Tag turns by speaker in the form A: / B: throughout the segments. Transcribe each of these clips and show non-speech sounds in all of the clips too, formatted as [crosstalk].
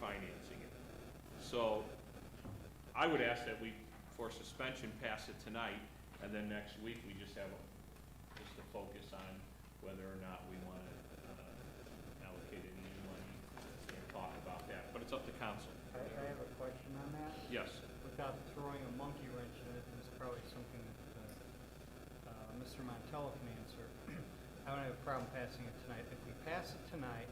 A: financing it. So I would ask that we, for suspension, pass it tonight, and then next week, we just have, a- just to focus on whether or not we want to allocate any new money and talk about that, but it's up to council.
B: I, I have a question on that.
A: Yes,
B: Without throwing a monkey wrench in it, it's probably something that, uh, uh, Mr. Montella can answer. [clears throat] I don't have a problem passing it tonight. If we pass it tonight,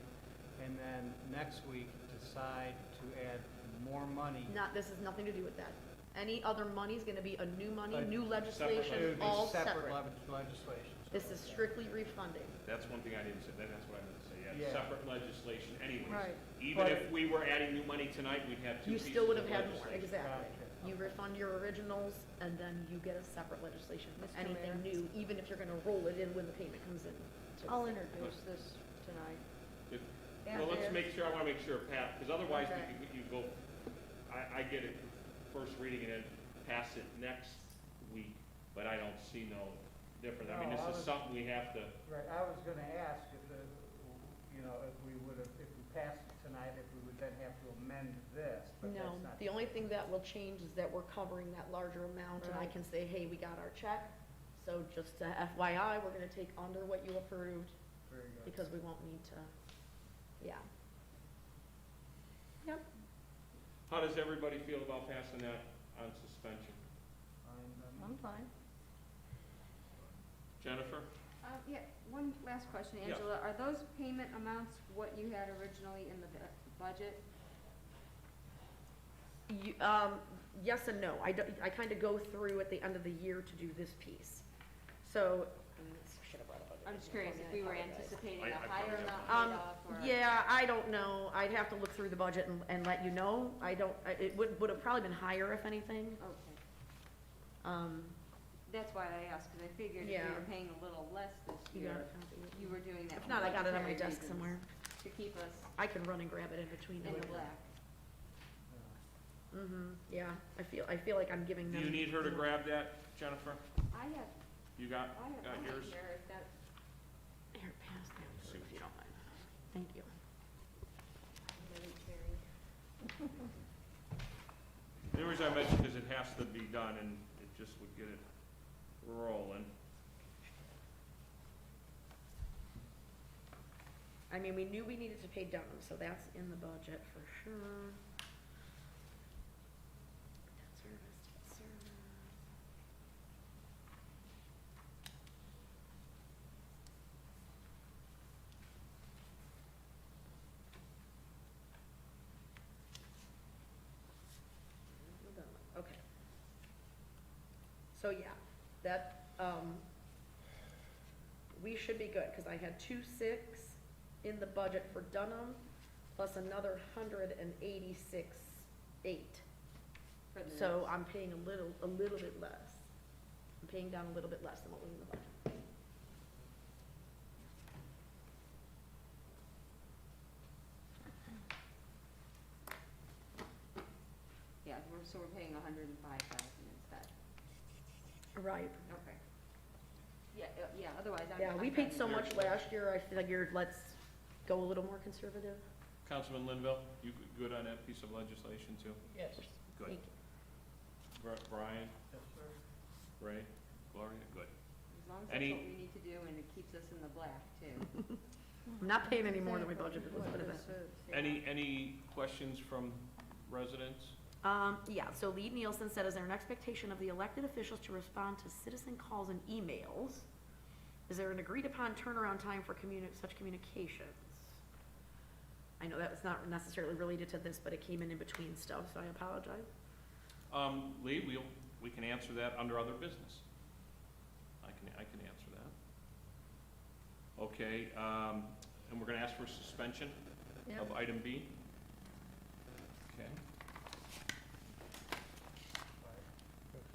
B: and then next week decide to add more money.
C: Not, this has nothing to do with that. Any other money is gonna be a new money,
B: But-
C: new
A: Separate
B: It would be
C: legislation, all
B: separate
C: separate.
B: le- legislation. so-
C: This is strictly refunding.
A: that's one thing I didn't say, that's what I meant to say, yeah,
B: Yeah.
A: separate legislation anyways.
C: Right.
A: Even
B: But-
A: if we were adding new money tonight, we'd have two
C: You
A: pieces of
C: still would have had more,
A: legislation.
C: exactly.
B: Gotcha.
C: You refund your originals, and then you get a separate legislation with
D: Mr.
C: anything
D: Mayor?
C: new, even if you're gonna roll it in when the payment comes in. to
D: I'll
C: us.
D: introduce this tonight.
A: If-
D: Yeah,
A: Well, let's
D: there.
A: make sure, I want to make sure, Pat, because otherwise
D: Okay.
A: we could, you go, I, I get it, first reading and then pass it next week, but I don't see no difference.
D: Oh,
A: I mean,
B: No, I
A: this is
B: was-
A: something we have to,
B: Right, I was gonna ask if the, you know, if we would have, if we passed it tonight, if we would then have to amend this, but that's
C: No,
B: not.
C: the only thing that will change is that we're covering that larger amount, and I
D: Right.
C: can say, hey, we got our check. So just uh, FYI, we're gonna take under what you approved,
B: Very good.
C: because we won't need to, yeah. Yep.
A: how does everybody feel about passing that on suspension?
B: And, um,
D: I'm fine.
A: Jennifer?
E: Uh, Yeah, one last question,
A: Yeah.
E: Angela. Are those payment amounts what you had originally in the bu- budget?
C: You, um, yes and no. I don't, I kind of go through at the end of the year to do this piece. So, and this should have brought up.
E: I'm just curious if we were anticipating
A: I-
E: a
A: I
E: higher
A: probably
E: amount
C: Um,
E: paid off or...
C: yeah, I don't know. I'd have to look through the budget and, and let you know. I don't, I- it would, would have probably been higher if anything.
E: Okay,
C: Um,
E: that's why I asked, because I figured if
C: Yeah.
E: you were paying a little less this
C: You got it,
E: year,
C: copy.
E: you were doing that.
C: if not, I got it on my
E: for
C: desk
E: reasons,
C: somewhere.
E: To keep us
C: I can run and grab it in between.
E: in the black.
C: Mm-hmm, yeah. I feel, I feel like I'm giving
A: Do you
C: them.
A: need her to grab that, Jennifer?
E: I have,
A: You got,
E: I have
A: got
E: mine
A: yours?
E: here, if that,
C: Here, pass that, if you don't mind. Thank you.
A: The reason I mentioned because it has to be done and it just would get it rolling.
C: I mean, we knew we needed to pay Dunham, so that's in the budget for sure. Debt service, debt service. Dunham, Okay. So, yeah, that, um, we should be good, because I had two six in the budget for Dunham, plus another hundred and eighty-six eight.
E: for the...
C: So I'm paying a little, a little bit less. I'm paying down a little bit less than what was in the budget.
E: Yeah, we're- so we're paying 105000 instead.
C: Right.
E: Okay. Yeah, uh, yeah, otherwise I'm...
C: Yeah, we
E: I'm
C: paid so
E: fine.
C: much last year, I figured let's go a little more conservative.
A: Councilman Linville, you good on that piece of legislation too?
B: Yes.
A: Good.
C: Thank you.
A: Bri- Brian,
B: Yes, sir.
A: Ray, Gloria, good.
E: As long as that's
A: Any-
E: what we need to do and it keeps us in the black too.
C: I'm not paying any more than we budgeted, let's put it that way.
A: Any, any questions from residents?
C: Um, yeah, so Lee Nielsen said, is there an expectation of the elected officials to respond to citizen calls and emails? Is there an agreed upon turnaround time for communi, such communications? I know that was not necessarily related to this, but it came in in between stuff, so I apologize.
A: Um, Lee, we'll, we can answer that under other business. I can, I can answer that. Okay, um, and we're gonna ask for suspension of item B? Okay,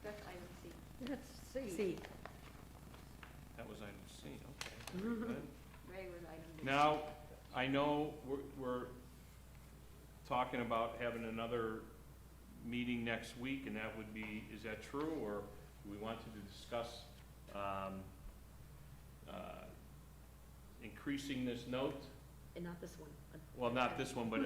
E: That's item C.
D: Let's see.
C: See,
A: that was item C, okay, very good.
E: Ray was item B.
A: Now, I know we're, we're talking about having another meeting next week, and that would be, is that true? Or we wanted to discuss, um, uh, increasing this note?
C: and not this one.
A: Well, not this one, but